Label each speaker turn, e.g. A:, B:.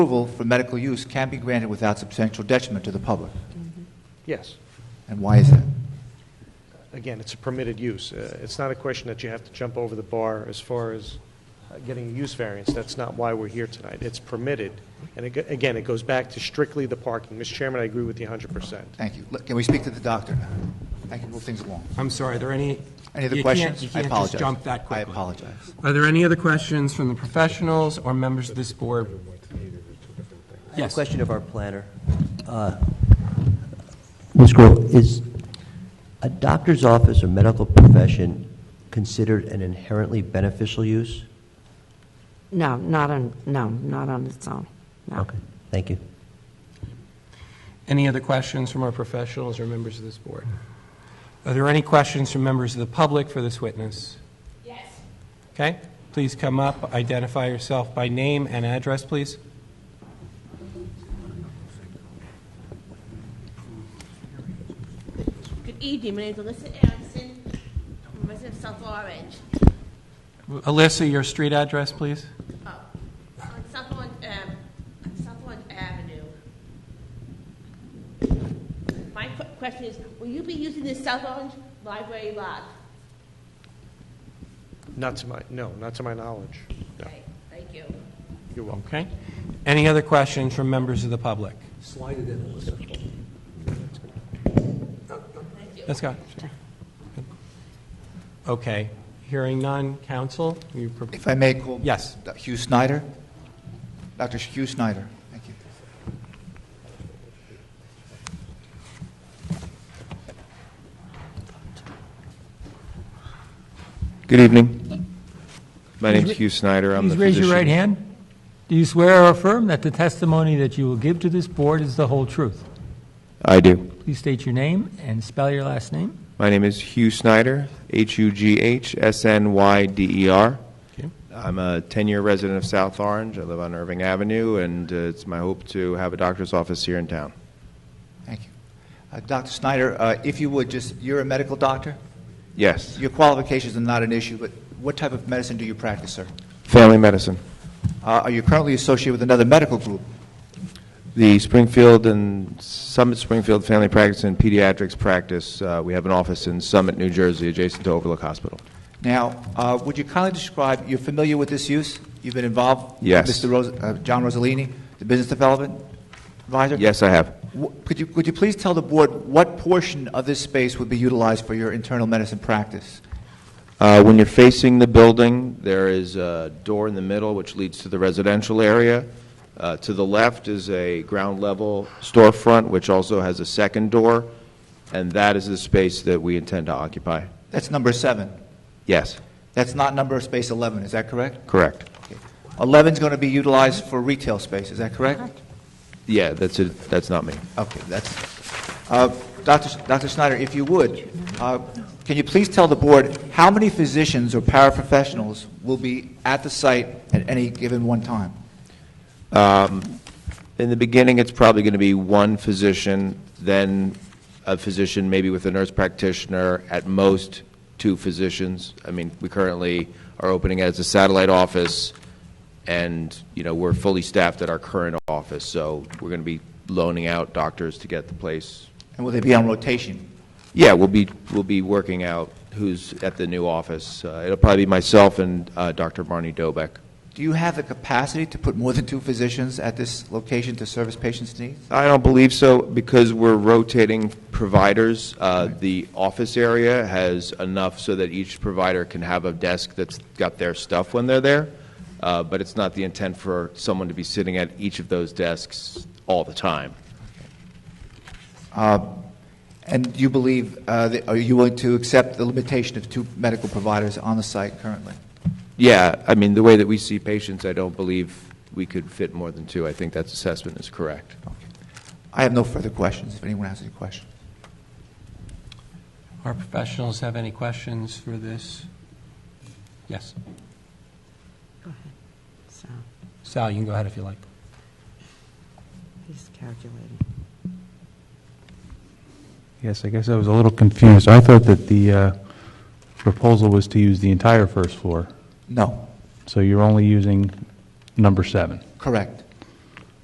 A: approval for medical use can be granted without substantial detriment to the public.
B: Yes.
A: And why is that?
B: Again, it's a permitted use. Uh, It's not a question that you have to jump over the bar as far as uh, getting a use variance. That's not why we're here tonight. It's permitted. And ag- again, it goes back to strictly the parking. Mr. Chairman, I agree with you 100%.
A: Thank you. Look, Can we speak to the doctor now? I can move things along.
C: I'm sorry, are there any?
A: Any
C: you
A: other
C: can't-
A: questions?
C: You
A: I
C: can't
A: apologize.
C: just jump that
A: I
C: quickly.
A: apologize.
C: Are there any other questions from the professionals or members of this board?
D: I have
C: Yes.
D: a question of our planner. Uh, Ms. Grove, is a doctor's office or medical profession considered an inherently beneficial use?
E: No, not on, no, not on its own, no.
D: Okay, thank you.
C: Any other questions from our professionals or members of this board? Are there any questions from members of the public for this witness? Yes. Okay, please come up, identify yourself by name and address, please.
F: Good evening, my name is Alyssa Anderson, I'm a resident of South Orange.
C: Alyssa, your street address, please.
F: Oh, On South Orange, um, on South Orange Avenue. My que- question is, will you be using this South Orange library lot?
B: Not to my, no, not to my knowledge. No.
F: Okay, Thank you.
B: You're welcome.
C: Okay. Any other questions from members of the public? Slide it in, Alyssa. Let's go. Okay. Hearing none, council, you, pro-
A: If I may call...
C: Yes.
A: Hugh Snyder? Dr. Hugh Snyder, thank you.
G: Good evening. My name's Hugh Snyder. I'm the
H: Please
G: physician.
H: raise your right hand. Do you swear or affirm that the testimony that you will give to this board is the whole truth?
G: I do.
H: Please state your name and spell your last name.
G: My name is Hugh Snyder, H-U-G-H-S-N-Y-D-E-R.
C: Okay.
G: E I'm a 10-year resident of South Orange. I live on Irving Avenue, and uh, it's my hope to have a doctor's office here in town.
A: Thank you. Uh, Dr. Snyder, uh, if you would, just, you're a medical doctor?
G: Yes.
A: Your qualifications are not an issue, but what type of medicine do you practice, sir?
G: Family medicine.
A: Uh, Are you currently associated with another medical group?
G: The Springfield and Summit Springfield Family Practice and Pediatrics Practice, uh, we have an office in Summit, New Jersey, adjacent to Overlook Hospital.
A: Now, uh, would you kindly describe, you're familiar with this use? You've been involved? with
G: Yes.
A: Mr. Ros- uh, John Rosalini, the Business Development Advisor?
G: Yes, I have.
A: Wh- Could you, could you please tell the board what portion of this space would be utilized for your internal medicine practice?
G: Uh, When you're facing the building, there is a door in the middle which leads to the residential area. Uh, To the left is a ground-level storefront, which also has a second door, and that is the space that we intend to occupy.
A: That's number seven.
G: Yes,
A: That's not number space 11, is that correct?
G: correct.
A: 11 is going to be utilized for retail space, is that correct?
G: Yeah, that's it, that's not me.
A: Okay, that's, uh, Dr. Sch- Dr. Snyder, if you would, uh, can you please tell the board how many physicians or paraprofessionals will be at the site at any given one time?
G: In the beginning, it's probably going to be one physician, then a physician maybe with a nurse practitioner, at most two physicians. I mean, we currently are opening as a satellite office, and, you know, we're fully staffed at our current office, so we're going to be loaning out doctors to get the place.
A: And will they be on rotation?
G: Yeah, we'll be, we'll be working out who's at the new office. Uh, It'll probably be myself and uh, Dr. Barney Dobek.
A: Do you have the capacity to put more than two physicians at this location to service patients' needs?
G: I don't believe so, because we're rotating providers. Uh, The office area has enough so that each provider can have a desk that's got their stuff when they're there, Uh, but it's not the intent for someone to be sitting at each of those desks all the time.
A: And do you believe, uh, that- are you willing to accept the limitation of two medical providers on the site currently?
G: Yeah, I mean, the way that we see patients, I don't believe we could fit more than two. I think that assessment is correct.
A: I have no further questions, if anyone has any questions.
C: our professionals have any questions for this? Yes.
E: So,
C: Sal, you can go ahead if you like.
E: he's calculating.
I: Yes, I guess I was a little confused. I thought that the uh, proposal was to use the entire first floor,
A: No,
I: so you're only using number seven.
A: correct.